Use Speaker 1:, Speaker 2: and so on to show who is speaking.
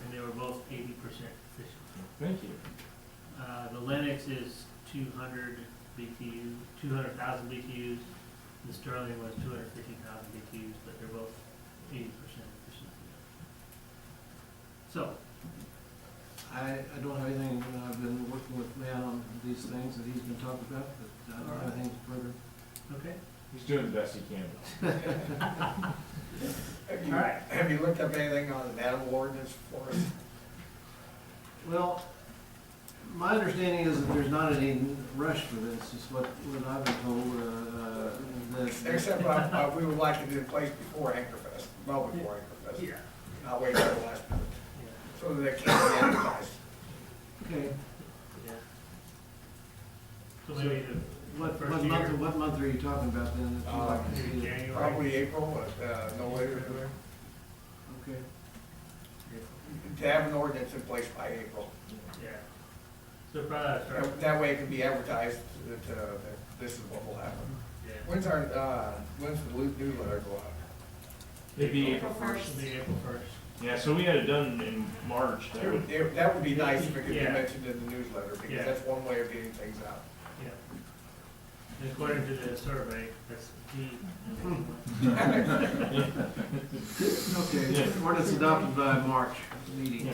Speaker 1: eighty percent efficient.
Speaker 2: Thank you.
Speaker 1: Uh, the Lennox is two hundred BTU, two hundred thousand BTUs. The Sterling was two hundred fifty thousand BTUs, but they're both eighty percent efficient. So,
Speaker 3: I, I don't have anything, uh, I've been working with Matt on these things that he's been talking about, but uh, I don't have anything further.
Speaker 1: okay,
Speaker 2: He's doing the best he can.
Speaker 4: Have
Speaker 1: all
Speaker 4: you,
Speaker 1: right.
Speaker 4: have you looked up anything on the animal ordinance for us?
Speaker 3: Well, my understanding is that there's not any rush for this, is what, what I've been told, uh, uh, that.
Speaker 4: Except, uh, uh, we would like to do it place before Anchorfest, well before Anchorfest,
Speaker 1: Yeah.
Speaker 4: not wait till the last minute,
Speaker 1: Yeah,
Speaker 4: so that it can be advertised.
Speaker 3: Okay,
Speaker 1: yeah. So maybe the,
Speaker 3: what,
Speaker 1: First
Speaker 3: what month,
Speaker 1: year.
Speaker 3: what month are you talking about then? that you'd like to
Speaker 1: maybe
Speaker 3: see it?
Speaker 1: January.
Speaker 4: Probably April, but, uh, no later than that.
Speaker 3: Okay,
Speaker 4: To have an ordinance in place by April.
Speaker 1: Yeah. So probably start,
Speaker 4: That- That way it can be advertised that, uh, that this is what will happen.
Speaker 1: yeah.
Speaker 4: When's our, uh, when's the new- newsletter go out?
Speaker 2: It'd be
Speaker 5: April first.
Speaker 1: It'll be April first.
Speaker 2: Yeah, so we had it done in March. That would,
Speaker 4: It- That would be nice if it could be
Speaker 1: Yeah.
Speaker 4: mentioned in the newsletter,
Speaker 1: Yeah.
Speaker 4: because that's one way of getting things out.
Speaker 1: Yeah. And According to the survey, that's the.
Speaker 3: okay, ordinance adopted by March meeting.
Speaker 2: yeah,